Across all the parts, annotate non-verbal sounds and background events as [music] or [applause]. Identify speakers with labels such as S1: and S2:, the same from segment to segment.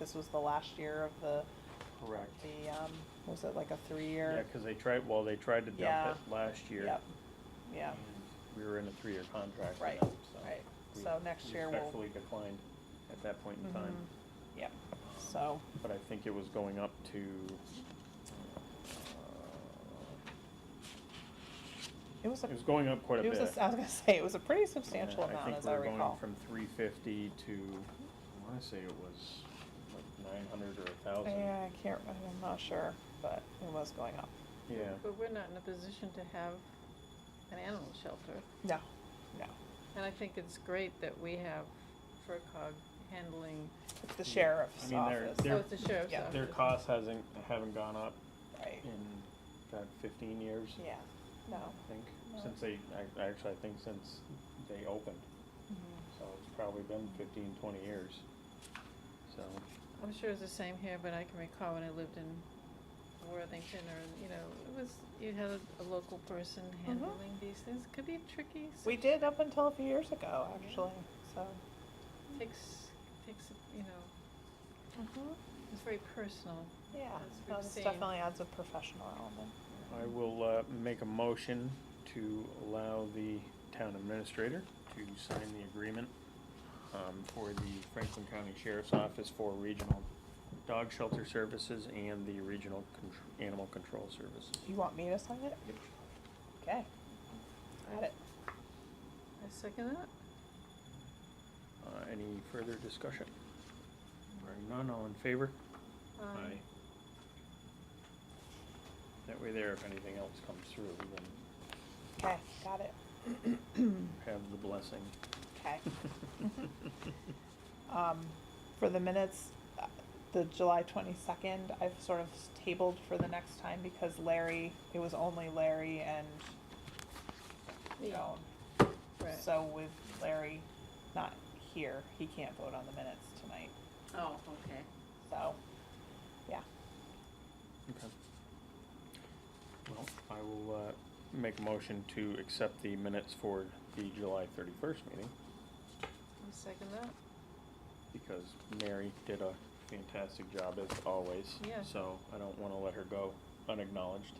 S1: This was the last year of the,
S2: Correct.
S1: the, um, was it like a
S2: Yeah,
S1: three-year?
S2: because they tried, well, they tried to
S1: Yeah.
S2: dump it last year.
S1: Yep, yeah,
S2: and We were in a three-year contract with
S1: Right,
S2: them, so.
S1: right.
S2: we
S1: So next year we'll-
S2: Respectfully declined at that point in time.
S1: Mm-hmm.
S2: Um,
S1: yep, so,
S2: But I think it was going up to, uh,
S1: it was a,
S2: it was going up quite a
S1: it
S2: bit.
S1: was, a s- I was gonna say, it was a pretty
S2: Yeah,
S1: substantial amount, as I
S2: think we were going
S1: recall.
S2: from three fifty to, I wanna say it was like nine hundred or a thousand.
S1: Yeah, I can't, I'm not sure, but it was going up.
S2: Yeah.
S3: But we're not in a position to have an animal shelter.
S1: No, no,
S3: And I think it's great that we have FERCog handling,
S1: it's the
S2: Yeah. I
S1: sheriff's
S2: mean, they're-
S1: office,
S2: they're-
S3: oh, it's the sheriff's
S1: yeah,
S3: office.
S2: Their costs hasn't, haven't gone up
S1: right,
S2: in, God, fifteen years.
S1: yeah, no.
S2: I think,
S1: No.
S2: since they, I- actually, I think since they opened, so it's probably been fifteen, twenty years. So,
S3: I'm sure it's the same here, but I can recall when I lived in Worthington or, in- you know, it was, you had a- a local person handling these things. Could be tricky. s-
S1: Mm-hmm. We did up until a few years ago, actually, so.
S3: Takes, takes, you know, it's very personal.
S1: Yeah,
S3: As
S1: no,
S3: we've
S1: this
S3: seen.
S1: definitely adds a professional element.
S2: I will, uh, make a motion to allow the town administrator to sign the agreement, um, for the Franklin County Sheriff's Office for regional dog shelter services and the regional contr- animal control services.
S1: You want me to sign it?
S2: Yep.
S1: Okay. Got it.
S3: I second that.
S2: Uh, any further discussion? Hearing none, all in favor?
S3: Um,
S2: Aye. That way there, if anything else comes through, we can
S1: Okay, got it.
S2: have the blessing.
S1: Okay. Um, for the minutes, uh, the July twenty-second, I've sort of tabled for the next time because Larry, it was only Larry and Joan.
S3: Right.
S1: So with Larry not here, he can't vote on the minutes tonight,
S4: Oh, okay.
S1: so, yeah.
S2: Okay. Well, I will, uh, make a motion to accept the minutes for the July thirty-first meeting,
S3: I second that.
S2: because Mary did a fantastic job as always.
S3: Yeah.
S2: So I don't wanna let her go unacknowledged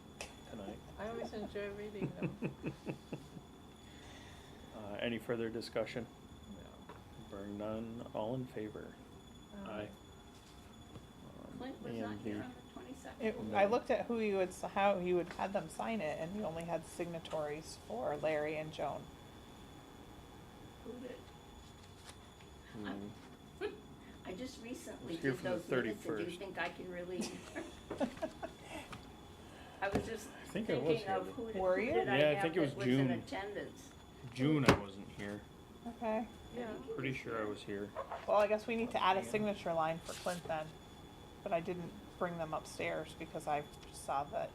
S2: tonight.
S3: I always enjoy reading
S2: [laughs]
S3: them.
S2: Uh, any further discussion? Bearing none, all in favor?
S3: Um,
S2: Um,
S4: Clint was
S2: and
S4: not
S2: the-
S4: here on the twenty-second?
S1: It, I looked at who he would, s- how he would had them sign it, and he only had signatories for Larry and Joan.
S4: Who did?
S2: Hmm.
S4: I [laughs] just recently
S2: It's here
S4: did
S2: from the
S4: those minutes, and do you
S2: 31st.
S4: think I can really?
S2: [laughs]
S4: I was just
S2: I think I was
S4: thinking
S2: here
S4: of
S2: then.
S4: who did,
S1: Were
S4: who
S1: you?
S4: did I
S2: Yeah, I
S4: have
S2: think it was
S4: that was in
S2: June.
S4: attendance?
S2: June I wasn't here.
S1: Okay,
S3: Yeah,
S2: Pretty sure I was here.
S1: well, I guess we need to add a
S2: Yeah.
S1: signature line for Clint then, but I didn't bring them upstairs because I saw that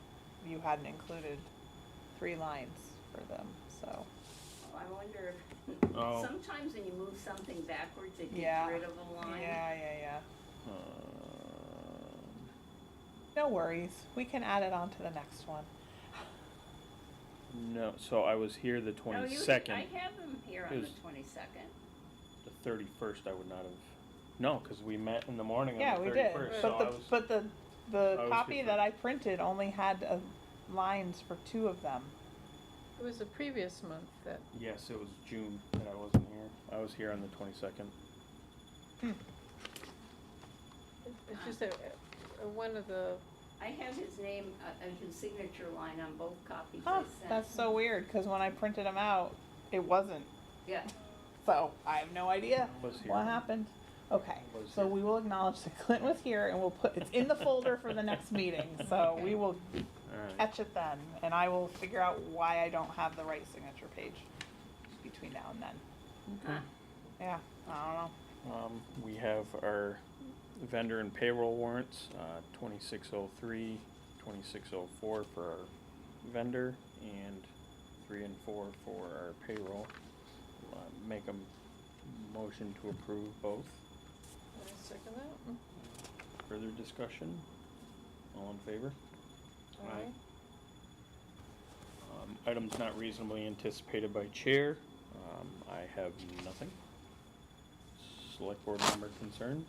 S1: you hadn't included three lines for them, so.
S4: Oh, I wonder
S2: [laughs] Oh.
S4: if, sometimes when you move something backwards, it
S1: Yeah.
S4: gets rid of a line.
S1: Yeah, yeah, yeah.
S2: Um,
S1: No worries, we can add it on to the next one.
S2: no, so I was here the
S4: No, you-
S2: twenty second.
S4: I have them here on the
S2: Is-
S4: twenty-second.
S2: The thirty first I would not have. No, because we met in the morning
S1: Yeah,
S2: on
S1: we
S2: the
S1: did,
S2: thirty first. So
S1: but
S2: I
S1: the,
S2: was.
S1: but the,
S2: I
S1: the
S2: was
S1: copy
S2: here
S1: that
S2: for-
S1: I printed only had, uh, lines for two of them.
S3: it was the previous month that,
S2: yes, it was June and I wasn't here. I was here on the twenty second.
S4: Hmm.
S3: it- it's just that, uh, one of the,
S4: I have his name, uh, and his signature line on both copies I
S1: Huh,
S4: sent.
S1: that's so weird, cause when I printed them out, it wasn't,
S4: Yeah,
S1: so I have no idea
S2: Was here.
S1: what happened. Okay,
S2: Was
S1: so
S2: here.
S1: we will acknowledge that Clint was here and we'll put, it's in the folder for the next
S2: [laughs]
S1: meeting, so we will
S2: All right.
S1: catch it then. And I will figure out why I don't have the right signature page between now and then.
S4: huh,
S1: Yeah, I don't know.
S2: Um, we have our vendor and payroll warrants, uh, twenty-six oh three, twenty-six oh four for our vendor, and three and four for our payroll. Uh, Make a motion to approve both.
S3: I second that.
S2: Further discussion? All in favor? Aye.
S3: Aye.
S2: Um, items not reasonably anticipated by chair, um, I have nothing. Select board member concerns?